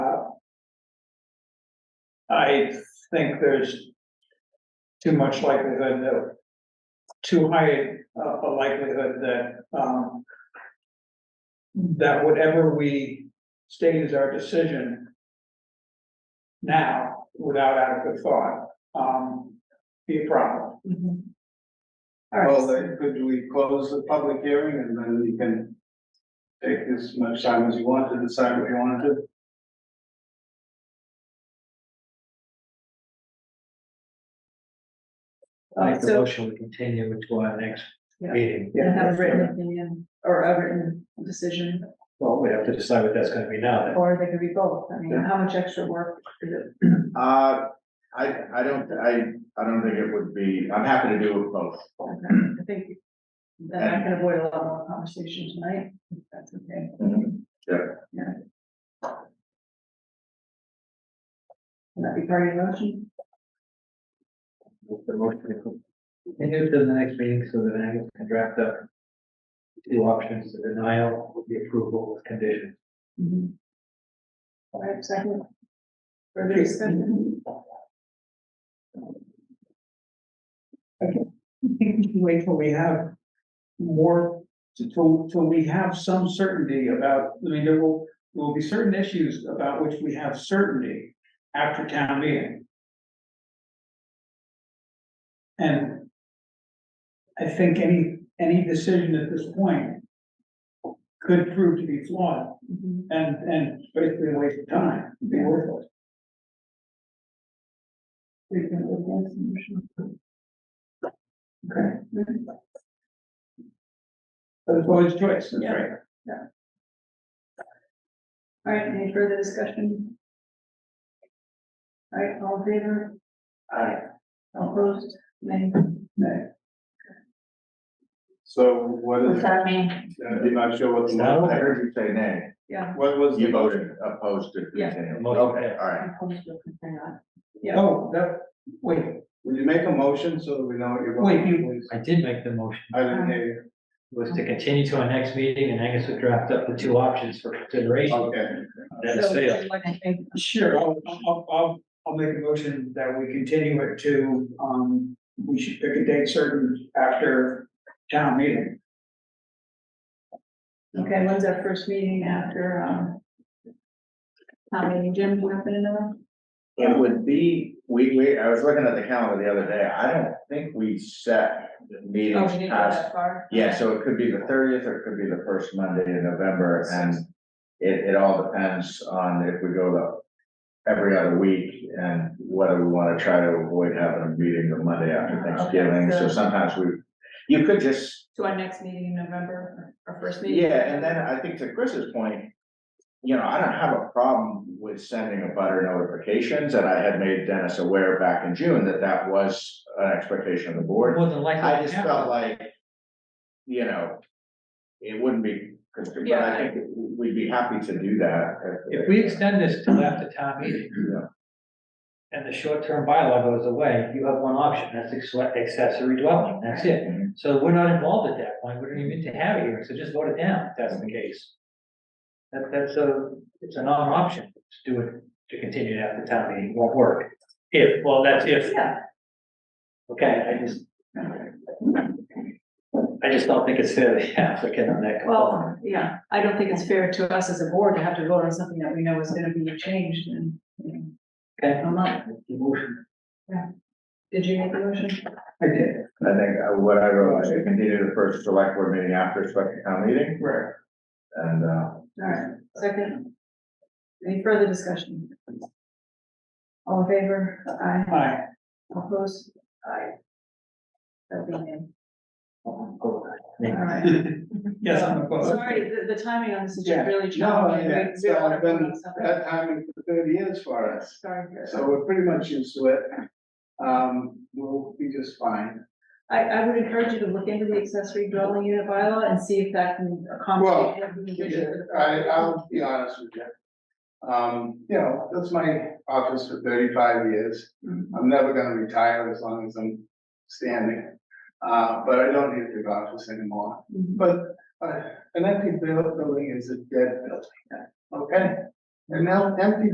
I think there's too much likelihood that, too high a a likelihood that, um, that whatever we state as our decision now, without adequate thought, um, be a problem. Mm-hmm. Well, then, could we close the public hearing and then you can take as much time as you want to decide what you want to? Uh, Make Uh, the so- motion to continue to our next Yeah. meeting. And have a written opinion or a written decision, Well, we have to decide what that's gonna be now. then. or they could be both. I mean, how much extra work is it? Uh, I, I don't, I, I don't think it would be, I'm happy to do both. I think then I can avoid a lot more conversation tonight, if that's okay. Mm-hmm. Yeah. Can that be part of your motion? Make The motion to continue to the next meeting so that Angus can draft up two options, the denial, the approval with conditions. Mm-hmm. All right, second. Further discussion? Wait till we have more, till, till we have some certainty about, I mean, there will, there will be certain issues about which we have certainty after town meeting. And I think any, any decision at this point could prove to be flawed Mhm. and, and basically a waste of time, be worthless. We can vote against the motion. Okay. But it's always choice, that's Yeah. right. All right, any further discussion? All right, all in favor? Aye. All opposed? Nay. Nay. So what What's is, that mean? I'm not sure what the. No. I heard you say nay. Yeah. What was the You motion? voted opposed to Yeah. continue. Motion Okay, passed. all right. I'm supposed to consider that. Yeah. Oh, that, wait, Would you make a motion so that we know what you're Wait, you- Uh, voting, please? I did make the motion, I didn't hear was to continue to our next meeting and Angus would draft up the two options for you. consideration. Okay. That's So, failed. I'd like to make- sure, I'll, I'll, I'll, I'll make a motion that we continue it to, um, we should pick a date certain after town meeting. Okay, when's our first meeting after, um, how many, Jim, do you happen to know? It would be, we, we, I was looking at the calendar the other day. I don't think we set Oh, meetings we didn't go past that far? Yeah, so it could be the thirtieth or it could be the first Monday in November and it, it all depends on if we go to every other week and whether we want to try to avoid having a meeting the Monday after Okay, Thanksgiving. so- So sometimes we, you could just, So our next meeting in November, our first meeting? yeah, and then I think to Chris's point, you know, I don't have a problem with sending a butter notifications and I had made Dennis aware back in June that that was an expectation of the board. More than likely. I just felt happened. like, you know, it wouldn't be, constructive, but Yeah. I think we'd be happy to do that. If we extend this till after town meeting, Yeah. and the short-term bylaw goes away, you have one option, that's ex- accessory dwelling, that's it. Mhm. So we're not involved at that point, we don't even need to have it here, so just vote it down, if that's the case. That, that's a, it's a non-option to do it, to continue it after town meeting, won't work. If, well, that's if, Yeah, okay, I just. I just don't think it's fair to the applicant on that. well, yeah, I don't think it's fair to us as a board to have to vote on something that we know is gonna be changed and, you know, Okay, I'm not, motion, did you make the motion? I did, I think uh, what I wrote, I should continue the first select board meeting after select town meeting right, and, uh, All right, second. Any further discussion? All in favor? Aye. aye. Opposed? Aye. That'll be nay. go All ahead. right. Yes, I'm opposed. Sorry, the, the timing on this is Yeah. just really No, challenging. We- yeah, we so don't wanna I've been- vote on something. That timing for thirty years for us. Sorry. So we're pretty much used to it. Um, we'll be just fine. I, I would encourage you to look into the accessory dwelling unit bylaw and see if that can Well, accommodate. what we can do for the I, property. I'll be honest with you. Um, you know, that's my office for thirty-five years. I'm never gonna retire as long as I'm standing. Uh, but I don't need a big office anymore. Mhm. But, uh, an empty buil- building is a dead building. Okay? An em- empty